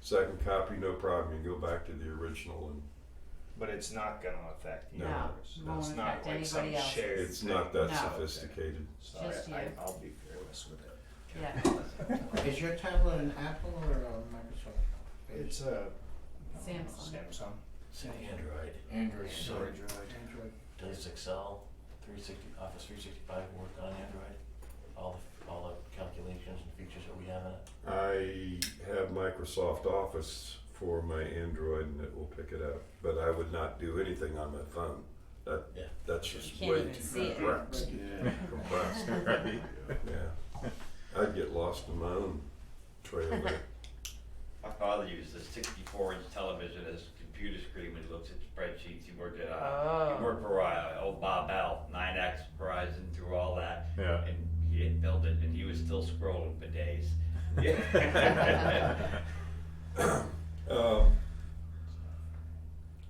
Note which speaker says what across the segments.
Speaker 1: Second copy, no problem, you can go back to the original and
Speaker 2: But it's not gonna affect you.
Speaker 1: No,
Speaker 2: others.
Speaker 1: it
Speaker 2: It's
Speaker 3: won't
Speaker 2: not
Speaker 3: affect
Speaker 2: like some
Speaker 3: anybody else.
Speaker 2: shared
Speaker 1: it's not that
Speaker 3: No.
Speaker 1: sophisticated.
Speaker 2: So
Speaker 3: Just
Speaker 2: I, I,
Speaker 3: you.
Speaker 2: I'll be fearless with it.
Speaker 3: Yeah.
Speaker 4: Is your tablet an Apple or a Microsoft?
Speaker 2: It's a
Speaker 3: Samsung.
Speaker 2: Samsung.
Speaker 5: It's an Android.
Speaker 4: Android.
Speaker 5: So
Speaker 2: Android.
Speaker 4: Android.
Speaker 5: does Excel, 360, Office 365 work on Android? All the, all the calculations and features that we have in it?
Speaker 1: I have Microsoft Office for my Android and it will pick it up, but I would not do anything on my phone. That,
Speaker 5: Yeah.
Speaker 1: that's just
Speaker 3: Can't
Speaker 1: way
Speaker 3: even see
Speaker 1: too
Speaker 3: it.
Speaker 1: complex.
Speaker 4: Yeah.
Speaker 1: Compressed, Yeah, I'd get lost in my own trail there.
Speaker 6: My father used a sixty-four inch television as a computer screen when he looks at spreadsheets, he worked at, uh,
Speaker 2: Oh.
Speaker 6: he worked for, uh, old Bob Bell, nine X, Verizon, through all that.
Speaker 7: Yeah.
Speaker 6: And he didn't build it, and he was still scrolling for days.
Speaker 1: Um,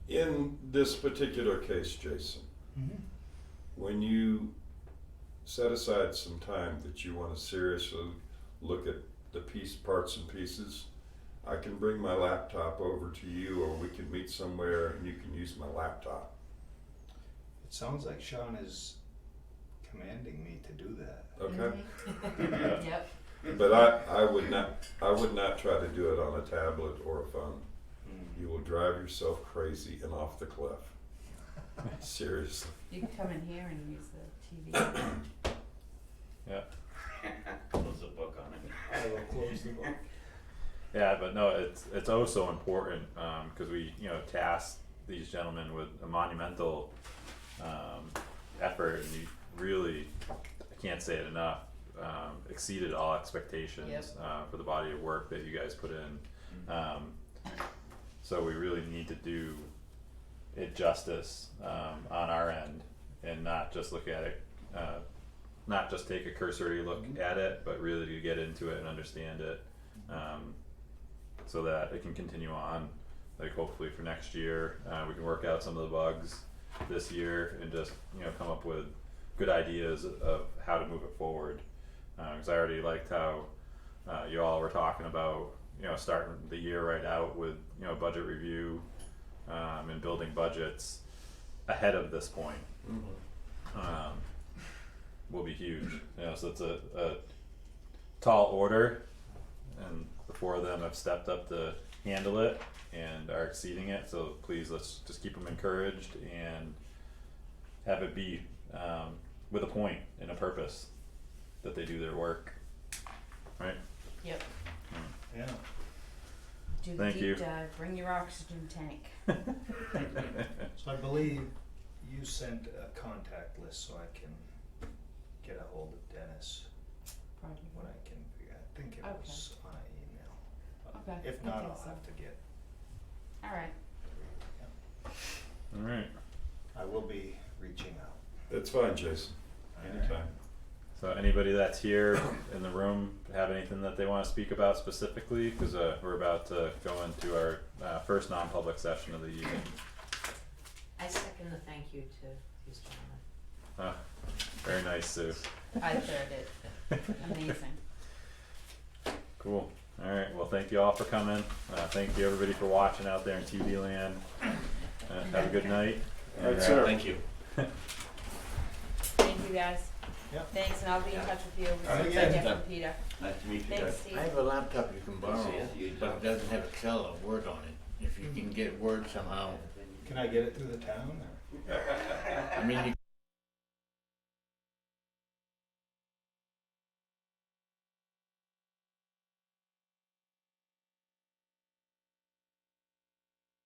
Speaker 1: In this particular case, Jason, when you set aside some time that you want to seriously look at the piece, parts and pieces, I can bring my laptop over to you or we can meet somewhere and you can use my laptop.
Speaker 2: It sounds like Sean is commanding me to do that.
Speaker 1: Okay?
Speaker 3: Mhm. Yep.
Speaker 1: But I, I would not, I would not try to do it on a tablet or a phone. You will drive yourself crazy and off the cliff. Seriously.
Speaker 3: You can come in here and use the TV.
Speaker 7: Yeah.
Speaker 6: Close the book on it.
Speaker 2: I will close the book.
Speaker 7: Yeah, but no, it's it's oh so important because we you know tasked these gentlemen with a monumental um, effort, and you really I can't say it enough um, exceeded all expectations
Speaker 3: Yep.
Speaker 7: uh, for the body of work that you guys put in. Um, so we really need to do it justice um, on our end, and not just look at it. Uh, not just take a cursory look at it, but really to get into it and understand it um, so that it can continue on. Like hopefully for next year, uh, we can work out some of the bugs this year and just you know come up with good ideas of how to move it forward. Because I already liked how uh, you all were talking about you know starting the year right out with you know budget review um, and building budgets ahead of this point um, will be huge. You know, so it's a, a tall order, and the four of them have stepped up to handle it and are exceeding it. So please, let's just keep them encouraged and have it be um, with a point and a purpose that they do their work. Right?
Speaker 3: Yep.
Speaker 2: Yeah.
Speaker 3: Do the
Speaker 7: Thank you.
Speaker 3: deep dive, bring your oxygen tank.
Speaker 2: So I believe you sent a contact list so I can get a hold of Dennis
Speaker 3: Probably.
Speaker 2: when I can. figure- I think it
Speaker 3: Okay.
Speaker 2: was on an email.
Speaker 3: Okay,
Speaker 2: If
Speaker 3: I
Speaker 2: not,
Speaker 3: think
Speaker 2: I'll
Speaker 3: so.
Speaker 2: have to get.
Speaker 3: Alright,
Speaker 2: yeah.
Speaker 7: All right.
Speaker 2: I will be reaching out.
Speaker 1: That's fine, Jason. Anytime.
Speaker 7: So anybody that's here in the room have anything that they want to speak about specifically? Because uh, we're about to go into our uh, first non-public session of the evening.
Speaker 8: I second the thank you to these gentlemen.
Speaker 7: Uh, very nice, Sue.
Speaker 3: I third it, amazing.
Speaker 7: Cool. All right. Well, thank you all for coming. Uh, thank you everybody for watching out there in TV land. Uh, have a good night.
Speaker 1: All right, sir.
Speaker 5: Thank you.
Speaker 3: Thank you guys.
Speaker 2: Yep.
Speaker 3: Thanks, and I'll be in touch with you,
Speaker 6: Alright,
Speaker 3: with
Speaker 6: yeah.
Speaker 3: Jeff and Peter.
Speaker 5: Nice to meet you
Speaker 3: Thanks,
Speaker 5: guys.
Speaker 3: Steve.
Speaker 4: I have a laptop you can borrow,
Speaker 5: Yeah.
Speaker 4: but it doesn't have Excel or Word on it. If you can get Word somehow,
Speaker 2: Can I get it through the town or?
Speaker 4: I mean, you